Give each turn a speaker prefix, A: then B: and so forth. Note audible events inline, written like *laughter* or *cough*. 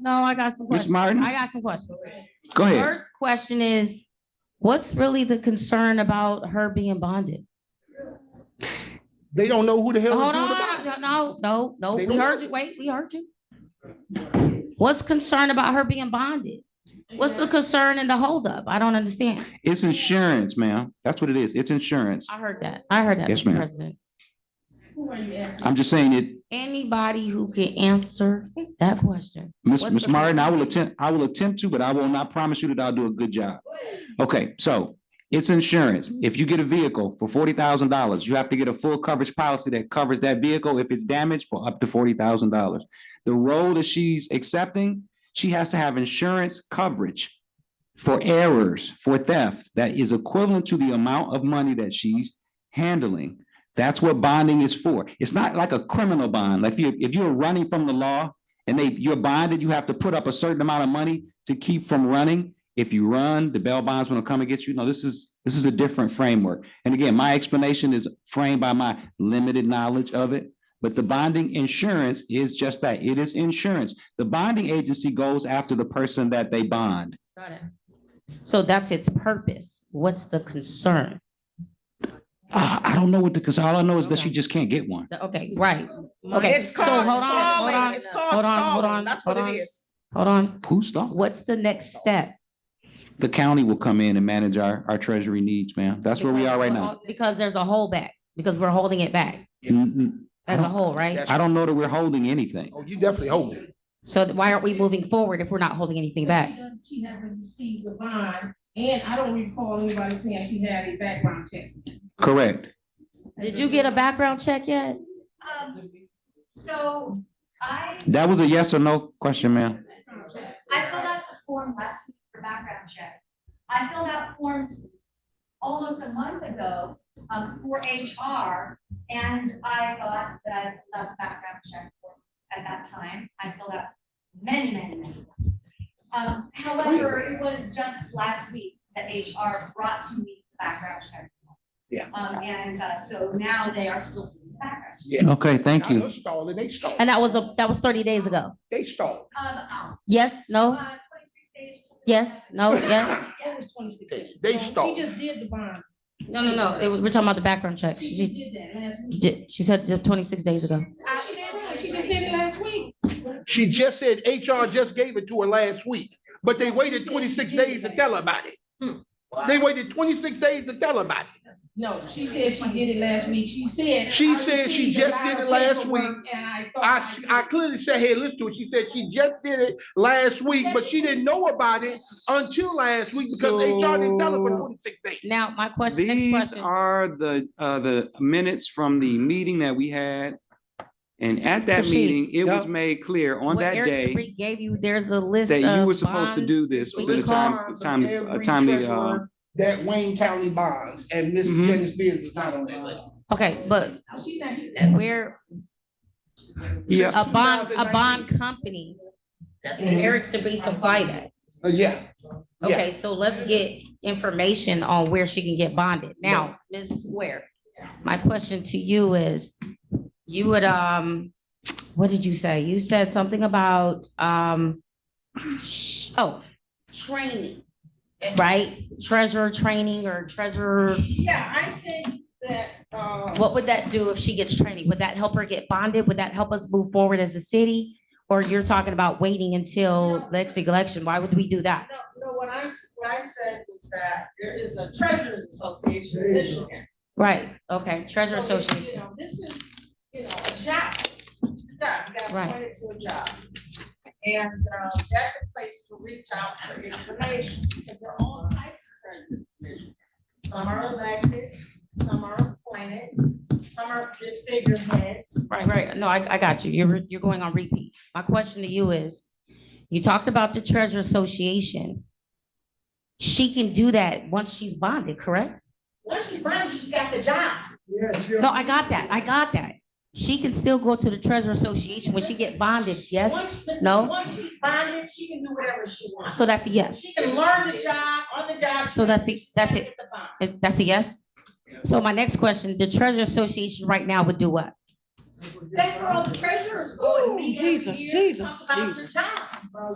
A: No, I got some
B: Ms.
A: questions.
B: Martin,
A: I got some questions.
B: go ahead.
A: First question is, what's really the concern about her being bonded?
C: They don't know who the hell is
A: Hold
C: doing the
A: on,
C: bond.
A: no, no, no, no,
C: They
A: we
C: don't
A: heard
C: know.
A: you, wait, we heard you. What's concern about her being bonded? What's the concern in the holdup? I don't understand.
B: It's insurance, ma'am. That's what it is. It's insurance.
A: I heard that. I heard that,
B: Yes,
A: Mr.
B: ma'am.
A: President.
B: I'm just saying it,
A: Anybody who can answer that question.
B: Miss
A: What's
B: Ms.
A: the
B: Martin, I will
A: percentage?
B: attempt, I will attempt to, but I will not promise you that I'll do a good job. Okay, so it's insurance. If you get a vehicle for forty thousand dollars, you have to get a full coverage policy that covers that vehicle if it's damaged for up to forty thousand dollars. The role that she's accepting, she has to have insurance coverage for errors, for theft, that is equivalent to the amount of money that she's handling. That's what bonding is for. It's not like a criminal bond. Like if you, if you're running from the law and they, you're bonded, you have to put up a certain amount of money to keep from running. If you run, the bail bondsman will come and get you. No, this is, this is a different framework. And again, my explanation is framed by my limited knowledge of it. But the bonding insurance is just that. It is insurance. The bonding agency goes after the person that they bond.
A: Got it. So that's its purpose. What's the concern?
B: Ah, I don't know what the, because all I know is that she
A: Okay.
B: just can't get one.
A: The- Okay, right. Okay.
D: It's
A: so
D: called
A: hold on, hold on,
D: stalling. It's called
A: hold on, hold on,
D: stalling. That's what
A: hold on.
D: it is.
A: Hold on.
B: Who's the,
A: What's the next step?
B: the county will come in and manage our, our treasury needs, ma'am. That's where we are right now.
A: Because there's a hole back, because we're holding it back
B: N- n-
A: as a whole, right?
C: That's-
B: I don't know that we're holding anything.
C: Oh, you definitely hold it.
A: So th- why aren't we moving forward if we're not holding anything back?
E: She never received the bond, and I don't recall anybody saying she had a background check.
B: Correct.
A: Did you get a background check yet?
F: Um, so I,
B: That was a yes or no question, ma'am.
F: I filled out the form last week for background check. I filled out forms almost a month ago, um, for HR, and I thought that I filled out a background check form at that time. I filled out many, many, many. forms. Um, however, it was just last week that HR brought to me the background check. form.
C: Yeah.
F: Um, and, uh, so now they are still doing the background. check.
C: Yeah.
B: Okay, thank
C: I know
B: you.
C: Stalling, they stalled.
A: And that was a, that was thirty days ago.
C: They stalled.
F: Um,
A: Yes, no,
F: uh, twenty-six days. or something like
A: yes,
F: that.
A: no,
B: *laughs*
A: yes?
E: That was twenty-six days.
C: They
E: So
C: stalled.
E: She just did the bond.
A: No, no, no, it was- we're talking about the background check.
E: She just
A: She,
E: did that last week.
A: she- she said it twenty-six days ago.
E: She did- She just did it last week.
C: She just said HR just gave it to her last week, but they waited twenty-six days to tell her about it.
A: Hmm.
C: They waited twenty-six days to tell her about it.
E: No, she said she did it last week. She said.
C: She
E: "I
C: said she
E: received a
C: just
E: lot
C: did it
E: of
C: last
E: paperwork,
C: week.
E: And I
C: I,
E: thought.
C: s- I clearly said, hey, listen to it. She said she just did it last week, but she didn't know about it until last week because HR didn't tell her for
B: So-
C: twenty-six days.
A: Now, my question, next
B: These
A: question.
B: are the, uh, the minutes from the meeting that we had. And at that
A: Proceed.
B: meeting, it was
C: Yep.
B: made clear on
A: What
B: that
A: Eric
B: day
A: Sabree gave you, there's a list
B: that you
A: of
B: were supposed to do
A: bonds.
B: this
A: we
B: with a
A: can call-
B: time,
C: Bonds of
B: timely, a
C: every
B: timely, uh,
C: treasurer That Wayne County bonds and Miss
B: Mhm.
C: Janice Beers is not on that list.
A: Okay, but
E: She's not here.
A: where
B: yeah,
A: a bond, a
C: 2019.
A: bond company, Eric Sabree supplied that.
C: Uh, Yeah. Yeah.
A: Okay, so let's get information on where she can get bonded. Now, Ms. Ware, my question to you is, you would, um, what did you say? You said something about, um, sh- oh, training, right? Treasurer training or treasurer,
E: Yeah, I think that,
G: um,
E: uh.
A: what would that do if she gets training? Would that help her get bonded? Would that help us move forward as a city? Or you're talking about waiting until next election? Why would we do that?
G: No, no, what I, what I said was that there is a treasurers association in Michigan.
A: Right, okay, treasurer
G: So, you
A: association.
G: know, This is, you know, a job, It's a job, you got
A: Right.
G: appointed to a job. And, um, that's a place to reach out for information, because there are all types of treasurers. in Michigan. Some are elected, some are appointed, some are just figureheads.
A: Right, right. No, I, I got you. You're, you're going on repeat. My question to you is, you talked about the treasure association. She can do that once she's bonded, correct?
G: Once she's running, she's got the job.
A: No, I got that. I got that. She can still go to the treasure association when she get bonded, yes?
G: Once- listen,
A: No?
G: Once she's bonded, she can do whatever she wants.
A: So that's a yes.
G: She can learn the job, on the job.
A: So that's it- that's it.
G: Get the bond.
A: Is- That's a yes? So my next question, the treasure association right now would do what?
G: That's where all the treasurers go and meet every year, to talk about their job.